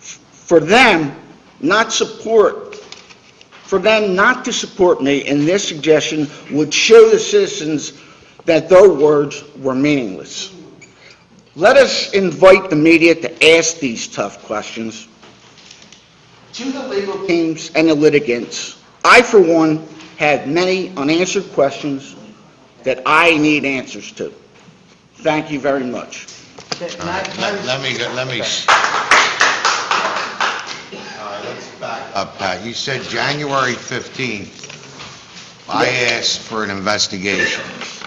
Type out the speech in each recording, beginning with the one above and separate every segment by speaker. Speaker 1: for them not support, for them not to support me in this suggestion would show the citizens that their words were meaningless. Let us invite the media to ask these tough questions to the legal teams and the litigants. I, for one, have many unanswered questions that I need answers to. Thank you very much.
Speaker 2: All right, let let me, go- let me. s- All right, let's back up, Pat. You said January 15th, I asked for an investigation.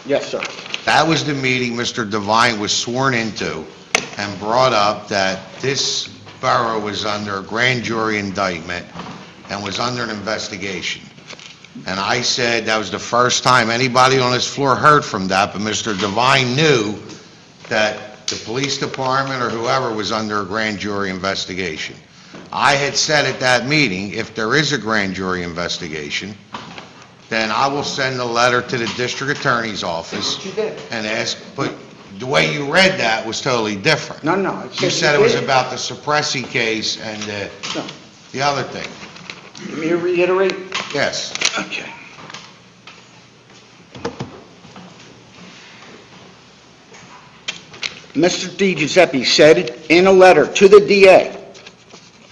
Speaker 1: Yes, sir.
Speaker 2: That was the meeting Mr. Devine was sworn into and brought up that this borough was under a grand jury indictment and was under an investigation. And I said that was the first time anybody on this floor heard from that, but Mr. Devine knew that the police department or whoever was under a grand jury investigation. I had said at that meeting, if there is a grand jury investigation, then I will send a letter to the district attorney's office
Speaker 1: What you did.
Speaker 2: and ask, but the way you read that was totally different.
Speaker 1: No, no. I
Speaker 2: You said it was
Speaker 1: did.
Speaker 2: about the Suppressi case and the,
Speaker 1: No.
Speaker 2: the other thing.
Speaker 1: Let me reiterate.
Speaker 2: Yes.
Speaker 1: Okay. Mr. Di Giuseppe said in a letter to the DA,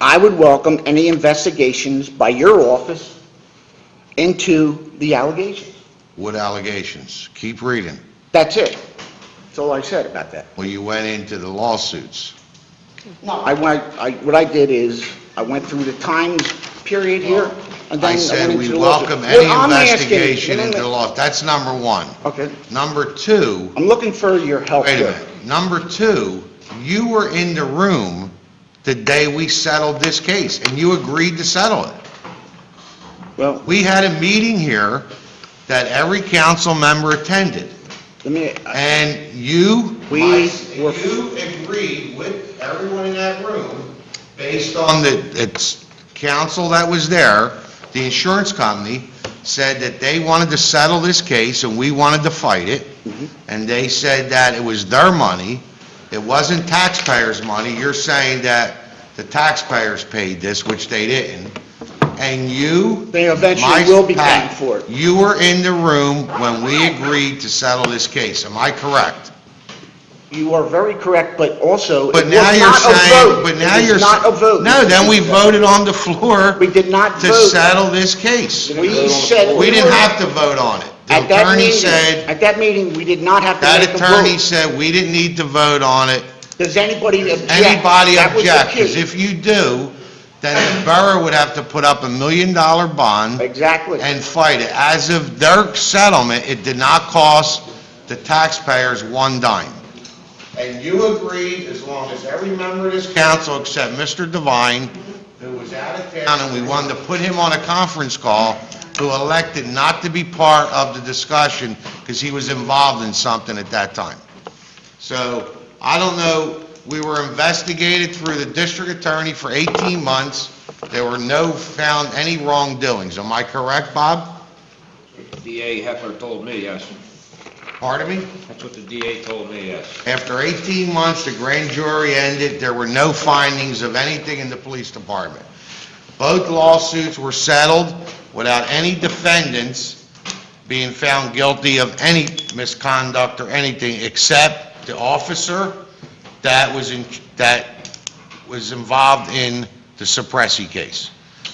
Speaker 1: "I would welcome any investigations by your office into the allegations."
Speaker 2: What allegations? Keep reading.
Speaker 1: That's it. That's all I said about that.
Speaker 2: Well, you went into the lawsuits.
Speaker 1: No, I went, I, what I did is, I went through the times period here, and then
Speaker 2: I
Speaker 1: I went
Speaker 2: said
Speaker 1: into
Speaker 2: we
Speaker 1: the lawsuit.
Speaker 2: welcome any
Speaker 1: Well, I'm asking-
Speaker 2: investigation
Speaker 1: wait a
Speaker 2: into the
Speaker 1: minute.
Speaker 2: law. That's number one.
Speaker 1: Okay,
Speaker 2: Number two,
Speaker 1: I'm looking for your help
Speaker 2: wait a
Speaker 1: here.
Speaker 2: minute. Number two, you were in the room the day we settled this case, and you agreed to settle it.
Speaker 1: Well,
Speaker 2: We had a meeting here that every council member attended.
Speaker 1: let me, uh,
Speaker 2: And you,
Speaker 1: We
Speaker 2: my-
Speaker 1: were-
Speaker 2: you agreed with everyone in that room, based on the, it's council that was there, the insurance company said that they wanted to settle this case and we wanted to fight it.
Speaker 1: Mm-hmm.
Speaker 2: And they said that it was their money, it wasn't taxpayers' money. You're saying that the taxpayers paid this, which they didn't. And you
Speaker 1: they eventually
Speaker 2: my-
Speaker 1: will be
Speaker 2: Pat,
Speaker 1: paying for it.
Speaker 2: You were in the room when we agreed to settle this case, am I correct?
Speaker 1: You are very correct, but also, it was
Speaker 2: But now you're
Speaker 1: not a
Speaker 2: saying,
Speaker 1: vote.
Speaker 2: but now
Speaker 1: It was
Speaker 2: you're...
Speaker 1: not a vote.
Speaker 2: No, then we
Speaker 1: Mr. Di
Speaker 2: voted on the floor
Speaker 1: We did not
Speaker 2: to
Speaker 1: vote.
Speaker 2: settle this case.
Speaker 1: We said.
Speaker 2: We didn't
Speaker 1: were-
Speaker 2: have to vote on it. The
Speaker 1: At that
Speaker 2: attorney
Speaker 1: meeting-
Speaker 2: said,
Speaker 1: At that meeting, we did not have to
Speaker 2: that
Speaker 1: make a
Speaker 2: attorney
Speaker 1: vote.
Speaker 2: said we didn't need to vote on it.
Speaker 1: Does anybody object?
Speaker 2: Anybody
Speaker 1: That was the
Speaker 2: object? Because
Speaker 1: key.
Speaker 2: if you do, then the borough would have to put up a million-dollar bond
Speaker 1: Exactly.
Speaker 2: and fight it. As of their settlement, it did not cost the taxpayers one dime. And you agreed, as long as every member of this council except Mr. Devine, who was out of town, and we wanted to put him on a conference call, who elected not to be part of the discussion because he was involved in something at that time. So, I don't know, we were investigated through the district attorney for 18 months. There were no found any wrongdoings. Am I correct, Bob?
Speaker 3: DA Heffler told me, yes.
Speaker 2: Pardon me?
Speaker 3: That's what the DA told me, yes.
Speaker 2: After 18 months, the grand jury ended, there were no findings of anything in the police department. Both lawsuits were settled without any defendants being found guilty of any misconduct or anything, except the officer that was in, that was involved in the Suppressi case.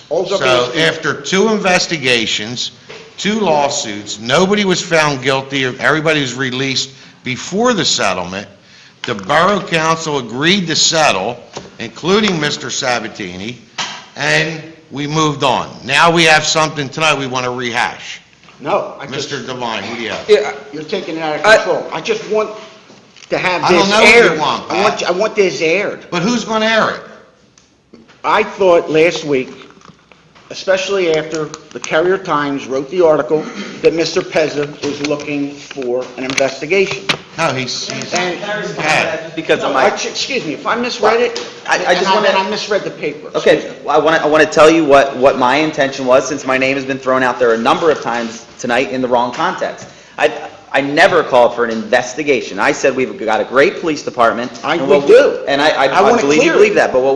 Speaker 1: Also,
Speaker 2: So after two investigations, two lawsuits, nobody was found guilty, everybody was released before the settlement. The Borough Council agreed to settle, including Mr. Sabatini, and we moved on. Now we have something tonight we want to rehash.
Speaker 1: No, I just,
Speaker 2: Mr. Devine, what do you have?
Speaker 4: Yeah,
Speaker 1: you're taking it out of control. I just want to have
Speaker 2: I don't
Speaker 1: this aired.
Speaker 2: know what you want,
Speaker 1: I want,
Speaker 2: Pat.
Speaker 1: I want this aired.
Speaker 2: But who's going to air it?
Speaker 1: I thought last week, especially after the Carrier Times wrote the article, that Mr. Pezza was looking for an investigation.
Speaker 2: No, he's, he's...
Speaker 1: And-
Speaker 2: Pat,
Speaker 4: Because I'm
Speaker 1: I-
Speaker 4: like,
Speaker 1: Excuse me, if I misread it,
Speaker 4: I- I just
Speaker 1: and
Speaker 4: wanna-
Speaker 1: and I misread the paper.
Speaker 4: okay, well, I want to, I want to tell you what, what my intention was, since my name has been thrown out there a number of times tonight in the wrong context. I, I never called for an investigation. I said we've got a great police department.
Speaker 1: I-
Speaker 4: and
Speaker 1: we
Speaker 4: what
Speaker 1: do.
Speaker 4: And
Speaker 1: I
Speaker 4: I, I
Speaker 1: want
Speaker 4: I
Speaker 1: it
Speaker 4: believe you
Speaker 1: clear.
Speaker 4: believe that, but what